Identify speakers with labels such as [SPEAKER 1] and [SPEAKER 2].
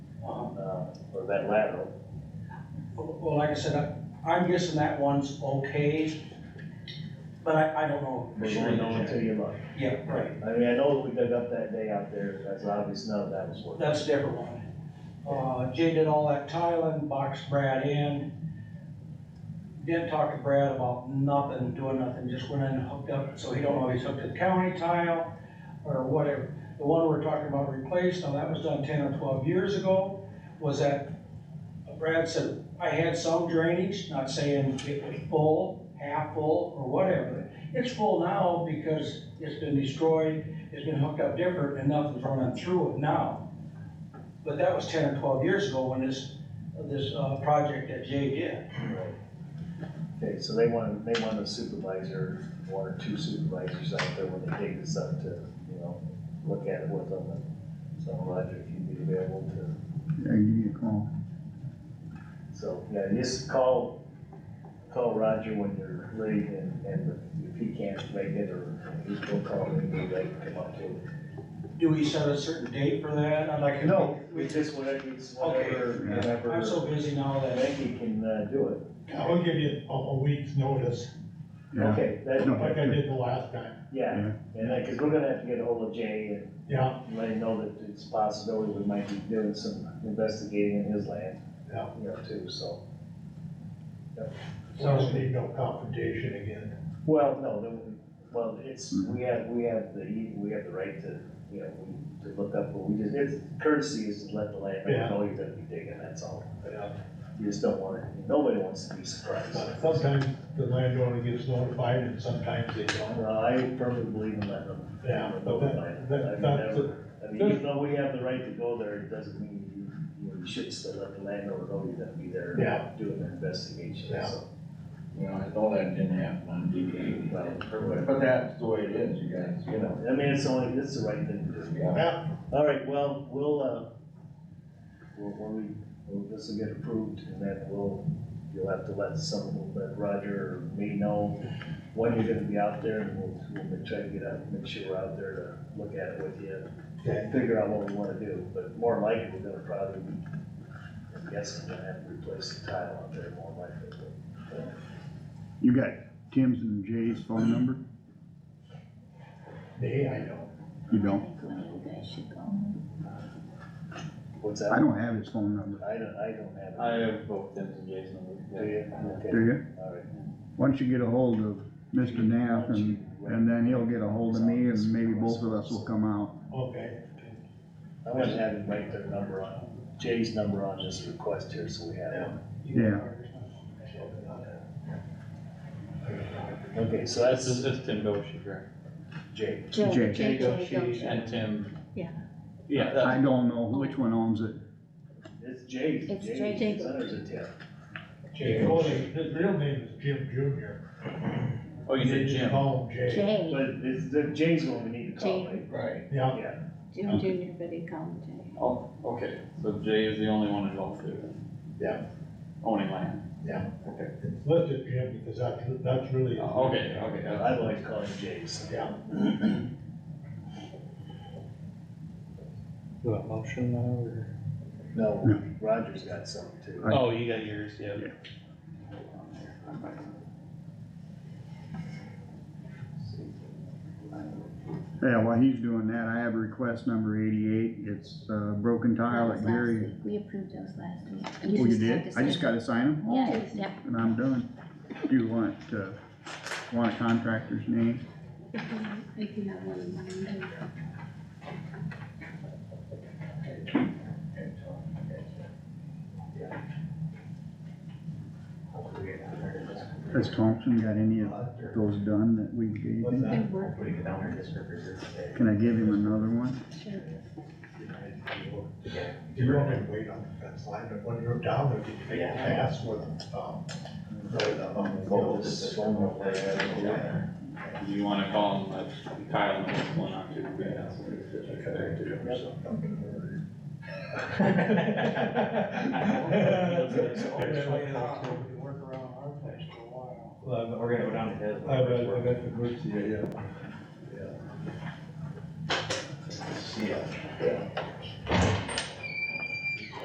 [SPEAKER 1] uh, or that lateral.
[SPEAKER 2] Well, like I said, I- I'm guessing that one's okay, but I, I don't know. for
[SPEAKER 1] We
[SPEAKER 2] sure.
[SPEAKER 1] only know until you look.
[SPEAKER 2] Yeah, right,
[SPEAKER 1] I mean, I know we dug up that day out there, that's obvious, none of that was working.
[SPEAKER 2] that's a different one. Uh, Jay did all that tiling, boxed Brad in. Didn't talk to Brad about nothing, doing nothing, just went in and hooked up, so he don't know if he's hooked to the county tile or whatever. The one we're talking about replaced, now that was done ten or twelve years ago, was that Brad said, I had some drainage, not saying it was full, half full, or whatever. It's full now because it's been destroyed, it's been hooked up different, and nothing's running through it now. But that was ten or twelve years ago when this, this, uh, project that Jay did.
[SPEAKER 1] Right. Okay, so they wanted, they wanted a supervisor, one or two supervisors out there when they dig this up to, you know, look at it with them. And So Roger, if you'd be available to,
[SPEAKER 3] Yeah, give me a call.
[SPEAKER 1] so, yeah, just call, call Roger when you're ready and, and if he can't make it or he's gonna call me, maybe they can come up to it.
[SPEAKER 2] Do we set a certain date for that? I'd like to.
[SPEAKER 1] No, we just, whatever, it's whatever,
[SPEAKER 2] Okay.
[SPEAKER 1] whenever.
[SPEAKER 2] I'm so busy now that,
[SPEAKER 1] Becky can, uh, do it.
[SPEAKER 4] I will give you a, a week's notice,
[SPEAKER 3] Yeah,
[SPEAKER 1] Okay, that,
[SPEAKER 3] No.
[SPEAKER 4] like I did the last time,
[SPEAKER 1] yeah,
[SPEAKER 3] Yeah.
[SPEAKER 1] and then, cause we're gonna have to get ahold of Jay and
[SPEAKER 4] yeah,
[SPEAKER 1] let him know that it's a possibility we might be doing some investigating in his land.
[SPEAKER 4] Yeah.
[SPEAKER 1] You know, too, so,
[SPEAKER 4] so we need no confrontation again.
[SPEAKER 1] well, no, then, we- well, it's, we have, we have the, we have the right to, you know, we- to look up, but we just, it's courtesy is to let the landlord
[SPEAKER 4] Yeah.
[SPEAKER 1] know you're gonna be digging, that's all.
[SPEAKER 4] Yeah.
[SPEAKER 1] You just don't want, it- nobody wants to be surprised.
[SPEAKER 4] uh, But Sometimes the landowner gets notified and sometimes they don't,
[SPEAKER 1] Well, I firmly believe in letting them.
[SPEAKER 4] yeah, but that,
[SPEAKER 1] I
[SPEAKER 4] that,
[SPEAKER 1] mean,
[SPEAKER 4] that's,
[SPEAKER 1] that-
[SPEAKER 4] a-
[SPEAKER 1] I mean, even though we have the right to go there, it doesn't mean you, you know, you should still let the landlord know you're gonna be there.
[SPEAKER 4] Yeah.
[SPEAKER 1] Doing an investigation,
[SPEAKER 4] Yeah.
[SPEAKER 1] so.
[SPEAKER 5] Well, I thought that didn't happen on DDA, but that's the way it is, you guys, you
[SPEAKER 1] You
[SPEAKER 5] know.
[SPEAKER 1] know, I mean, it's only, it's the right thing to do.
[SPEAKER 4] yeah,
[SPEAKER 1] All right, well, we'll, uh, we'll, when we, when this will get approved, and then we'll, you'll have to let some, let Roger or me know when you're gonna be out there, and we'll, we'll try to get out, make sure we're out there to look at it with you.
[SPEAKER 4] Okay.
[SPEAKER 1] and Figure out what we wanna do, but more than likely, we're gonna probably, I guess, we're gonna have to replace the tile out there more likely.
[SPEAKER 3] you got Tim's and Jay's phone number?
[SPEAKER 4] they, I know.
[SPEAKER 3] You don't?
[SPEAKER 1] What's
[SPEAKER 3] I
[SPEAKER 1] that?
[SPEAKER 3] don't have his phone number,
[SPEAKER 1] I don't, I don't have it.
[SPEAKER 6] I have both Tim's and Jay's
[SPEAKER 1] Do
[SPEAKER 6] number.
[SPEAKER 1] you?
[SPEAKER 3] do
[SPEAKER 1] Okay,
[SPEAKER 3] you?
[SPEAKER 1] all right.
[SPEAKER 3] Why don't you get a hold of Mr. Knapp and, and then he'll get a hold of me and maybe both of us will come out.
[SPEAKER 4] Okay,
[SPEAKER 1] I'm gonna have him write their number on, Jay's number on this request here, so we have
[SPEAKER 3] Yeah.
[SPEAKER 1] it. Okay, so
[SPEAKER 6] That's,
[SPEAKER 1] that's
[SPEAKER 6] that's Tim Doshi, correct?
[SPEAKER 1] Jay.
[SPEAKER 3] Jay.
[SPEAKER 6] Jay Doshi
[SPEAKER 7] Jay
[SPEAKER 6] and Tim.
[SPEAKER 7] Yeah.
[SPEAKER 6] Yeah,
[SPEAKER 3] I
[SPEAKER 6] that's,
[SPEAKER 3] don't know which one owns it.
[SPEAKER 1] It's Jay.
[SPEAKER 7] It's
[SPEAKER 1] Jay.
[SPEAKER 7] Jay.
[SPEAKER 1] His Center's a tip.
[SPEAKER 4] Jay, well, his his real name is Jim Junior.
[SPEAKER 6] oh, you
[SPEAKER 4] They
[SPEAKER 6] did
[SPEAKER 4] just
[SPEAKER 6] Jim.
[SPEAKER 4] Call him Jay,
[SPEAKER 7] Jay,
[SPEAKER 1] But it's, the Jay's one we need to call, right?
[SPEAKER 5] Right.
[SPEAKER 4] yeah,
[SPEAKER 1] Yeah,
[SPEAKER 7] Jim Junior, but he called him Jay.
[SPEAKER 6] Oh, okay, so Jay is the only one involved there.
[SPEAKER 4] Yeah.
[SPEAKER 6] Owning land.
[SPEAKER 4] it's listed Jim because that's, that's really.
[SPEAKER 6] Oh, Okay, okay, uh,
[SPEAKER 1] I've always called him Jay, so.
[SPEAKER 4] Yeah,
[SPEAKER 8] Do a motion now, or?
[SPEAKER 1] No, Roger's got some too.
[SPEAKER 3] Right.
[SPEAKER 8] Oh, you got yours, yeah.
[SPEAKER 3] Yeah, while he's doing that, I have request number eighty-eight. It's, uh, broken tile at
[SPEAKER 7] That was last
[SPEAKER 3] Gary.
[SPEAKER 7] week. We approved those last week.
[SPEAKER 3] Oh, you
[SPEAKER 7] just had
[SPEAKER 3] did?
[SPEAKER 7] to
[SPEAKER 3] I just
[SPEAKER 7] sign
[SPEAKER 3] gotta sign them?
[SPEAKER 7] it. Yeah, yeah,
[SPEAKER 3] And I'm done. Do you want, uh, want a contractor's name?
[SPEAKER 7] if you- if you have one in mind.
[SPEAKER 3] Has Thompson got any of those done that we gave
[SPEAKER 4] what's
[SPEAKER 3] him?
[SPEAKER 4] that?
[SPEAKER 7] Good work,
[SPEAKER 3] Can I give him another one?
[SPEAKER 7] sure.
[SPEAKER 4] You don't have to wait on the fence line, but when you're down there, you can make a pass with, um, with, um, goals.
[SPEAKER 6] you wanna call him, uh, Kyle, and what's going on too? yeah.
[SPEAKER 2] we work around our place for a while.
[SPEAKER 8] Well, we're gonna go down to his.
[SPEAKER 4] I bet, I bet the groups, yeah, yeah.
[SPEAKER 5] Yeah.